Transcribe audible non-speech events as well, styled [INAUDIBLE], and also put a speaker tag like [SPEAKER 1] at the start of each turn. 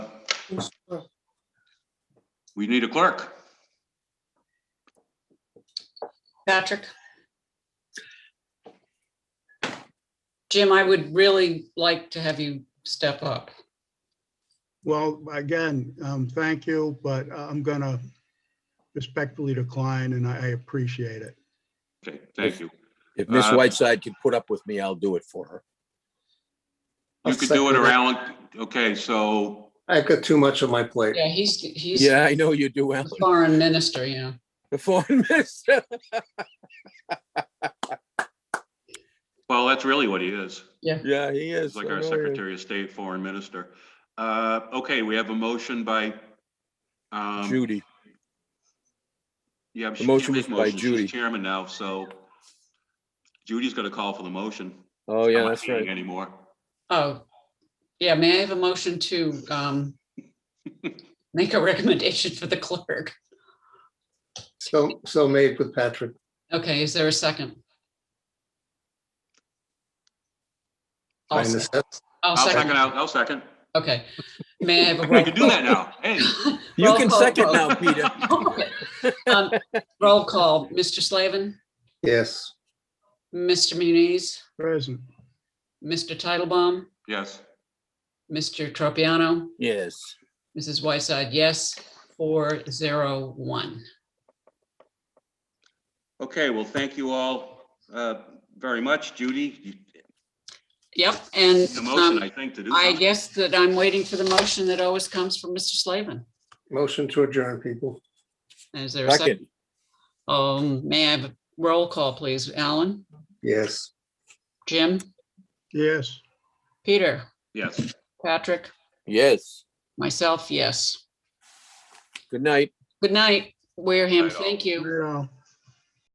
[SPEAKER 1] We need a clerk.
[SPEAKER 2] Patrick? Jim, I would really like to have you step up.
[SPEAKER 3] Well, again, um, thank you, but uh, I'm gonna respectfully decline and I I appreciate it.
[SPEAKER 1] Okay, thank you.
[SPEAKER 4] If Miss
[SPEAKER 1] Uh,
[SPEAKER 4] Whiteside can put up with me, I'll do it for her.
[SPEAKER 1] You could do it or Alan, okay, so,
[SPEAKER 5] I've got too much on my plate.
[SPEAKER 2] Yeah, he's, he's
[SPEAKER 4] Yeah, I know you do,
[SPEAKER 2] the
[SPEAKER 4] Alan.
[SPEAKER 2] foreign minister, you know.
[SPEAKER 4] The foreign [LAUGHS] minister.
[SPEAKER 1] well, that's really what he is.
[SPEAKER 4] Yeah, he is.
[SPEAKER 1] He's like
[SPEAKER 4] I
[SPEAKER 1] our
[SPEAKER 4] know he is.
[SPEAKER 1] Secretary of State, Foreign Minister. Uh, okay, we have a motion by, um,
[SPEAKER 4] Judy,
[SPEAKER 1] yeah, but
[SPEAKER 4] The
[SPEAKER 1] she
[SPEAKER 4] motion
[SPEAKER 1] can't make
[SPEAKER 4] was by
[SPEAKER 1] motions.
[SPEAKER 4] Judy.
[SPEAKER 1] She's chairman now, so Judy's gonna call for the motion. It's
[SPEAKER 4] oh,
[SPEAKER 1] not
[SPEAKER 4] yeah,
[SPEAKER 1] my
[SPEAKER 4] that's
[SPEAKER 1] meeting
[SPEAKER 4] right.
[SPEAKER 1] Anymore.
[SPEAKER 2] Oh, yeah, may I have a motion to um make a [LAUGHS] recommendation for the clerk?
[SPEAKER 5] So, so made with Patrick.
[SPEAKER 2] Okay, is there a second? I'll
[SPEAKER 5] By
[SPEAKER 2] se-
[SPEAKER 5] necessity.
[SPEAKER 2] I'll
[SPEAKER 1] I'll second,
[SPEAKER 2] second,
[SPEAKER 1] out. I'll second.
[SPEAKER 2] okay. May I have a?
[SPEAKER 1] We
[SPEAKER 2] roll
[SPEAKER 1] can do that
[SPEAKER 4] [LAUGHS]
[SPEAKER 1] now, hey.
[SPEAKER 4] You
[SPEAKER 2] Roll
[SPEAKER 4] can
[SPEAKER 2] call
[SPEAKER 4] second
[SPEAKER 2] vote.
[SPEAKER 4] now, Peter.
[SPEAKER 2] Um, Roll call, Mr. Slavin,
[SPEAKER 5] Yes,
[SPEAKER 2] Mr. Muniz,
[SPEAKER 3] Present.
[SPEAKER 2] Mr. Titlebaum,
[SPEAKER 1] Yes,
[SPEAKER 2] Mr. Tropiano,
[SPEAKER 4] Yes.
[SPEAKER 2] Mrs. Whiteside, yes, four zero one.
[SPEAKER 1] okay, well, thank you all, uh, very much, Judy. You
[SPEAKER 2] Yep, and
[SPEAKER 1] need a motion,
[SPEAKER 2] um,
[SPEAKER 1] I think, to do
[SPEAKER 2] I
[SPEAKER 1] something.
[SPEAKER 2] guess that I'm waiting for the motion that always comes from Mr. Slavin.
[SPEAKER 5] motion to adjourn, people.
[SPEAKER 2] Is there a second?
[SPEAKER 4] Second,
[SPEAKER 2] Um, may I have a roll call, please? Alan,
[SPEAKER 5] Yes.
[SPEAKER 2] Jim,
[SPEAKER 3] Yes.
[SPEAKER 2] Peter,
[SPEAKER 1] Yes.
[SPEAKER 2] Patrick,
[SPEAKER 4] yes.
[SPEAKER 2] myself, yes.
[SPEAKER 4] Good night.
[SPEAKER 2] Good night, Wareham.
[SPEAKER 1] Night all.
[SPEAKER 2] Thank you.
[SPEAKER 3] Yeah.